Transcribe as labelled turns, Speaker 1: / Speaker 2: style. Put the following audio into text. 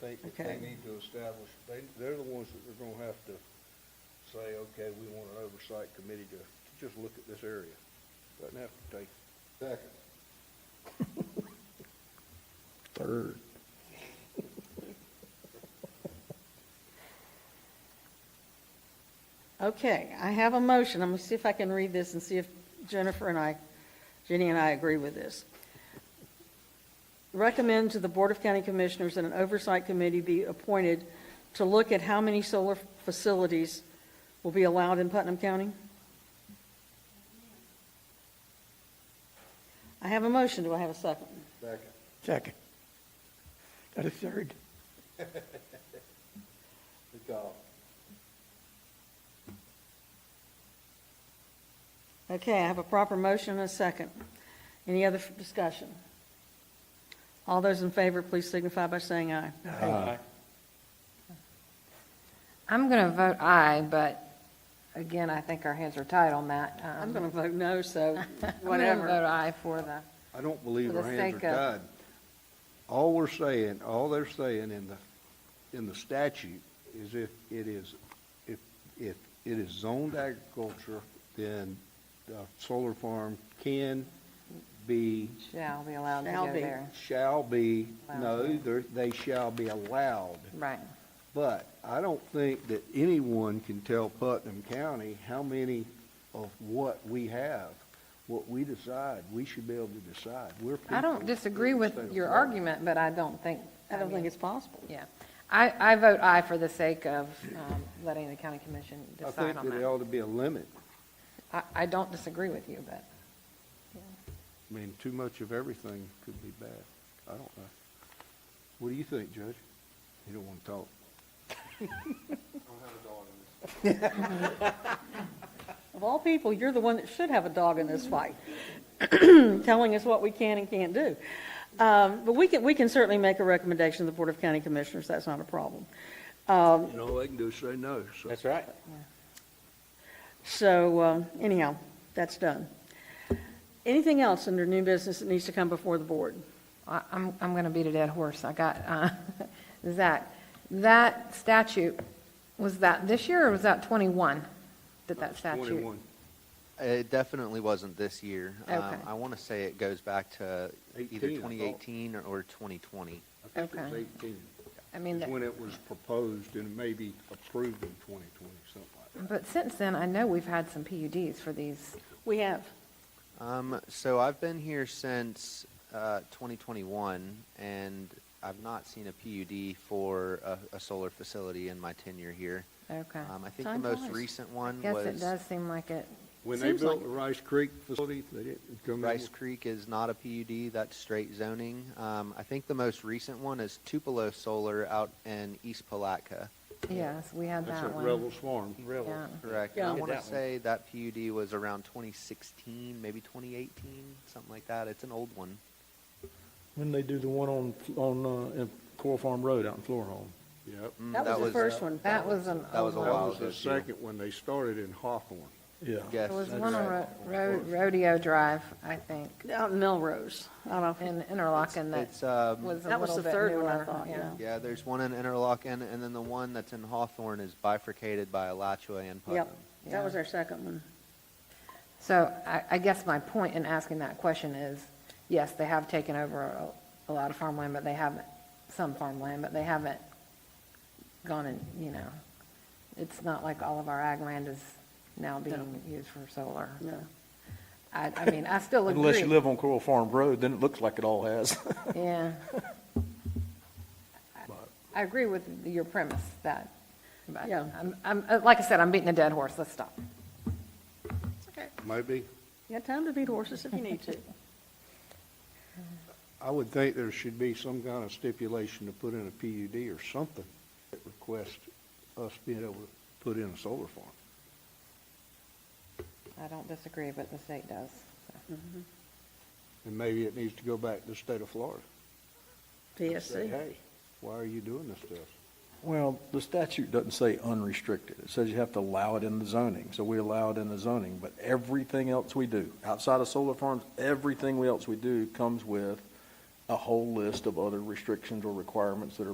Speaker 1: think that
Speaker 2: Okay.
Speaker 1: they need to establish, they, they're the ones that are gonna have to say, okay, we want an oversight committee to, to just look at this area. Doesn't have to take. Second.
Speaker 3: Third.
Speaker 2: Okay, I have a motion. I'm gonna see if I can read this and see if Jennifer and I, Jenny and I agree with this. Recommend to the Board of County Commissioners that an oversight committee be appointed to look at how many solar facilities will be allowed in Putnam County? I have a motion. Do I have a second?
Speaker 1: Second.
Speaker 3: Second. Got a third?
Speaker 1: Good call.
Speaker 2: Okay, I have a proper motion and a second. Any other f- discussion? All those in favor, please signify by saying aye.
Speaker 4: I'm going to vote aye, but again, I think our hands are tied on that.
Speaker 2: I'm
Speaker 4: Um,
Speaker 2: going to vote no, so
Speaker 4: I'm going to vote
Speaker 2: whatever.
Speaker 4: aye for the,
Speaker 1: I don't believe
Speaker 4: For
Speaker 1: our
Speaker 4: the
Speaker 1: hands are
Speaker 4: sake of-
Speaker 1: tied. All we're saying, all they're saying in the, in the statute is if it is, if, if it is zoned agriculture, then the solar farm can be,
Speaker 4: shall be allowed to
Speaker 2: Shall
Speaker 4: go
Speaker 2: be.
Speaker 4: there.
Speaker 1: shall be, no,
Speaker 4: Allowed.
Speaker 1: they're- they shall be allowed.
Speaker 4: Right.
Speaker 1: But I don't think that anyone can tell Putnam County how many of what we have, what we decide, we should be able to decide. We're people.
Speaker 4: I don't disagree
Speaker 1: in the
Speaker 4: with
Speaker 1: state of
Speaker 4: your
Speaker 1: Florida.
Speaker 4: argument, but I don't think,
Speaker 2: I don't think it's possible.
Speaker 4: yeah. I, I vote aye for the sake of um, letting the county commission
Speaker 1: I
Speaker 4: decide
Speaker 1: think
Speaker 4: on
Speaker 1: that there
Speaker 4: that.
Speaker 1: ought to be a limit.
Speaker 4: I, I don't disagree with you, but
Speaker 1: I mean, too much of everything could be bad. I don't know. What do you think, Judge? You don't want to talk.
Speaker 2: Of all people, you're the one that should have a dog in this fight, telling us what we can and can't do. Um, But we can, we can certainly make a recommendation to the Board of County Commissioners, that's not a problem.
Speaker 1: You know, all they can do is say no, so.
Speaker 5: That's right.
Speaker 2: So um, anyhow, that's done. Anything else under new business that needs to come before the board?
Speaker 4: I- I'm, I'm going to beat a dead horse. I got, uh, Zach, that statute, was that this year or was that 21? Did that statute?
Speaker 1: Twenty-one.
Speaker 6: It definitely wasn't this year. Um,
Speaker 4: Okay.
Speaker 6: I want to say it goes back to
Speaker 1: 18,
Speaker 6: either
Speaker 1: I thought.
Speaker 6: 2018 or- or 2020.
Speaker 1: I think it was
Speaker 4: Okay.
Speaker 1: eighteen.
Speaker 4: I mean,
Speaker 1: It's
Speaker 4: that-
Speaker 1: When it was proposed and maybe approved in twenty twenty, something like that.
Speaker 4: But since then, I know we've had some PUDs for these.
Speaker 2: We have.
Speaker 6: Um, So I've been here since uh, 2021, and I've not seen a PUD for a- a solar facility in my tenure here.
Speaker 4: Okay.
Speaker 6: Um, I think the
Speaker 2: Time
Speaker 6: most
Speaker 2: flies.
Speaker 6: recent one
Speaker 4: Guess it
Speaker 6: was
Speaker 4: does seem like it.
Speaker 1: When they
Speaker 2: Seems
Speaker 1: built
Speaker 2: like-
Speaker 1: the Rice Creek facility, they didn't come in.
Speaker 6: Rice
Speaker 1: with-
Speaker 6: Creek is not a PUD, that's straight zoning. Um, I think the most recent one is Tupelo Solar out in East Palatka.
Speaker 4: Yes, we had
Speaker 1: That's
Speaker 4: that
Speaker 1: at
Speaker 4: one.
Speaker 1: Rebel's Farm.
Speaker 4: Yeah.
Speaker 6: Correct. And I
Speaker 2: Yeah.
Speaker 6: want to
Speaker 5: That one.
Speaker 6: say that PUD was around 2016, maybe 2018, something like that. It's an old one.
Speaker 3: When they do the one on, on, uh, in Core Farm Road out in Florhome.
Speaker 1: Yep.
Speaker 6: Mm,
Speaker 2: That was uh, the first one.
Speaker 4: That was an
Speaker 6: That was
Speaker 4: old
Speaker 6: a
Speaker 1: That
Speaker 4: one.
Speaker 6: while
Speaker 1: was the
Speaker 6: ago, too.
Speaker 1: second one. They started in Hawthorne.
Speaker 3: Yeah.
Speaker 6: Yes.
Speaker 4: There was
Speaker 6: that's
Speaker 4: one on
Speaker 6: right.
Speaker 4: Ro- Ro- Rodeo Drive, I think,
Speaker 2: Out in Melrose. I don't know.
Speaker 4: in Interlochen that
Speaker 6: It's, um,
Speaker 4: was a
Speaker 2: That was
Speaker 4: little
Speaker 2: the
Speaker 4: bit
Speaker 2: third one, I
Speaker 4: newer,
Speaker 2: thought, yeah.
Speaker 6: yeah, there's one in Interlochen, and then the one that's in Hawthorne is bifurcated by Alachua and Putnam.
Speaker 2: Yep, that was our second one.
Speaker 4: So I, I guess my point in asking that question is, yes, they have taken over a, a lot of farmland, but they haven't, some farmland, but they haven't gone and, you know, it's not like all of our ag land is now being used for solar.
Speaker 2: No.
Speaker 4: I, I mean, I still agree.
Speaker 3: Unless you live on Coral Farm Road, then it looks like it all has.
Speaker 4: Yeah. I agree with your premise that, but
Speaker 2: Yeah.
Speaker 4: I'm, I'm, uh, like I said, I'm beating a dead horse. Let's stop.
Speaker 1: Maybe.
Speaker 2: You got time to beat horses if you need to.
Speaker 1: I would think there should be some kind of stipulation to put in a PUD or something that requests us being able to put in a solar farm.
Speaker 4: I don't disagree, but the state does. so.
Speaker 1: And maybe it needs to go back to the state of Florida. Say,
Speaker 2: PSC.
Speaker 1: hey, why are you doing this to us?
Speaker 3: Well, the statute doesn't say unrestricted. It says you have to allow it in the zoning, so we allow it in the zoning, but everything else we do, outside of solar farms, everything else we do comes with a whole list of other restrictions or requirements that are